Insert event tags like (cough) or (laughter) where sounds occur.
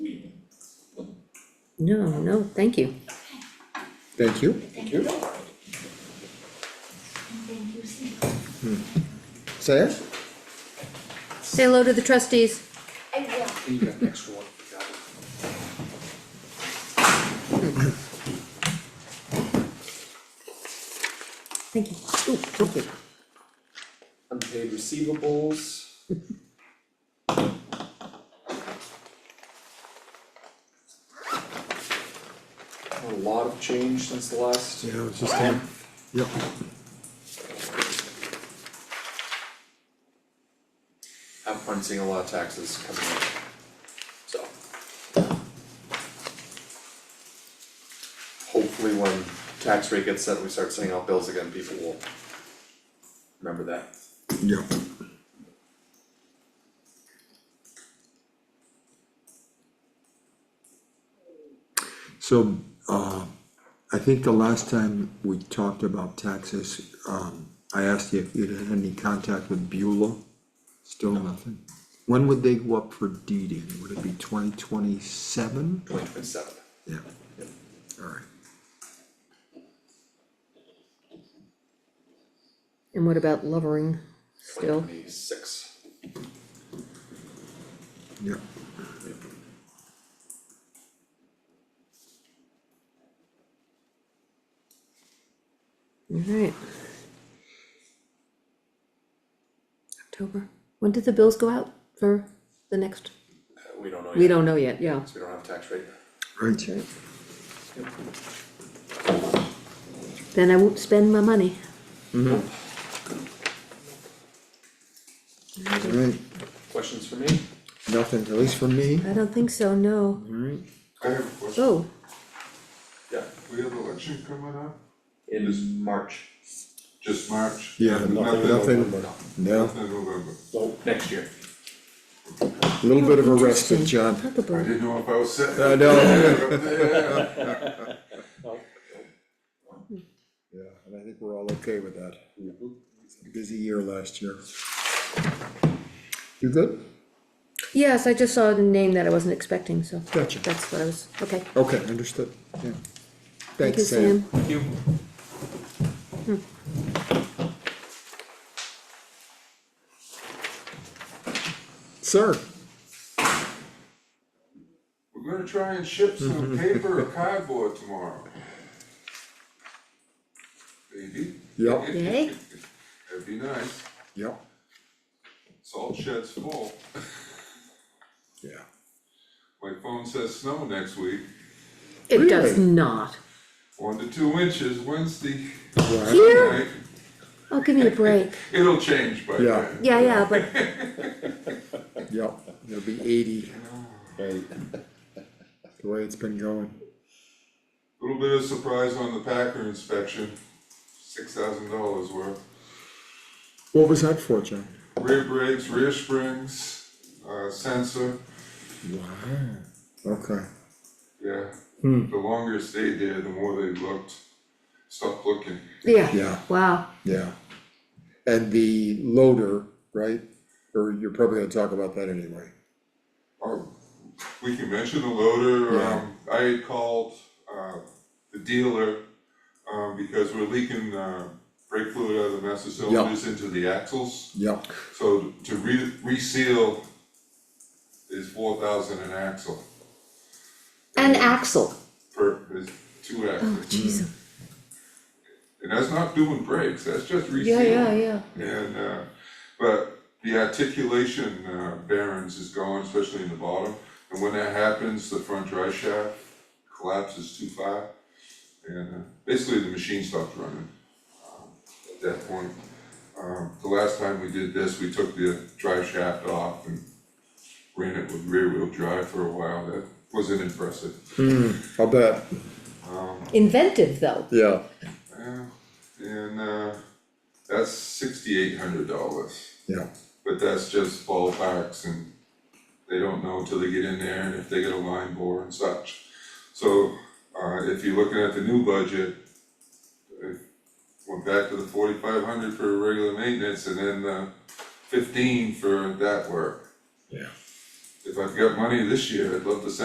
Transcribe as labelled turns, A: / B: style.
A: No, no, thank you.
B: Thank you.
C: Thank you.
D: Thank you, Sam.
B: Hmm. Say it.
A: Say hello to the trustees.
D: I will.
C: And you got an extra one, got it.
A: Thank you.
B: Ooh, okay.
C: Unpaid receivables. A lot of change since the last.
B: Yeah, it's just, um, yep.
C: I'm finding seeing a lot of taxes coming in, so. Hopefully when tax rate gets set, and we start sending out bills again, people will remember that.
B: Yep. So, uh, I think the last time we talked about taxes, um, I asked you if you'd had any contact with Beulah. Still nothing. When would they go up for deeding? Would it be twenty twenty-seven?
C: Twenty twenty seven.
B: Yeah, alright.
A: And what about Lovering still?
C: Twenty six.
B: Yep.
A: Alright. October, when did the bills go out for the next?
C: Uh, We don't know yet.
A: We don't know yet, yeah.
C: So we don't have tax rate.
B: Right.
A: Then I won't spend my money.
B: Alright,
C: Questions for me?
B: nothing, at least for me.
A: I don't think so, no.
B: Alright.
E: I have a question.
A: Oh,
C: Yeah.
E: We have election coming up,
C: In March,
E: just March.
B: Yeah,
E: Nothing
B: nothing,
E: November.
B: Uh, nothing, no,
E: Nothing November.
C: next year.
B: a little bit of a respite,
A: Interesting.
B: John.
A: talk about
E: I
A: it.
E: didn't know if I was sitting.
B: (laughs) I know.
E: Yeah.
B: Yeah, and I think we're all okay with that. Busy year last year. You good?
A: Yes, I just saw a name that I wasn't expecting, so.
B: Gotcha.
A: That's what I was, okay.
B: Okay, understood, yeah.
A: Thank you,
B: Thanks, Sam.
C: Thank you.
B: Sir,
E: We're gonna try and ship
B: Mm-hmm.
E: some paper or cardboard tomorrow. Maybe.
B: Yep.
A: Yay.
E: That'd be nice,
B: yep,
E: salt shed's full,
B: yeah.
E: my phone says snow next week,
A: It does
B: Really?
A: not.
E: one to two inches Wednesday
B: Right,
A: Here,
E: night.
A: oh, give me a break.
E: It'll change by then.
A: Yeah,
B: Yeah.
A: yeah, but
B: yep, it'll be eighty, (laughs) the way it's been going.
E: Little bit of surprise on the Packer inspection, six thousand dollars worth.
B: What was that for, John?
E: Rear brakes, rear springs, uh, sensor,
B: Wow. Okay,
E: yeah. The longer it stayed there, the more they looked, stopped looking.
A: yeah,
B: yeah,
A: wow.
B: yeah. And the loader, right, or you're probably gonna talk about that anyway.
E: Or, we can mention the loader,
B: Yeah.
E: um, I had called, uh, the dealer, um, because we're leaking, uh, brake fluid out of the master cylinders into the axles.
B: Yep,
E: So to re- reseal is four thousand an axle.
A: And Axel,
E: per, there's two
A: oh,
E: axes,
A: jeez,
E: and that's not doing brakes, that's just
A: yeah,
E: resealing.
A: yeah, yeah.
E: And, uh, but the articulation, uh, bearings is gone, especially in the bottom, and when that happens, the front drive shaft collapses too far. And, uh, basically the machine stopped running, um, at that point. Um, the last time we did this, we took the drive shaft off and ran it with rear wheel drive for a while, that wasn't impressive. Um,
B: I'll bet,
A: Inventive, though.
B: yeah,
E: Yeah, and uh, that's sixty-eight hundred dollars,
B: yeah.
E: but that's just ballparks and they don't know till they get in there and if they get a line bore and such. So, uh, if you're looking at the new budget, it went back to the forty-five hundred for regular maintenance and then the fifteen for that work.
B: Yeah.
E: If I've got money this year, I'd love to send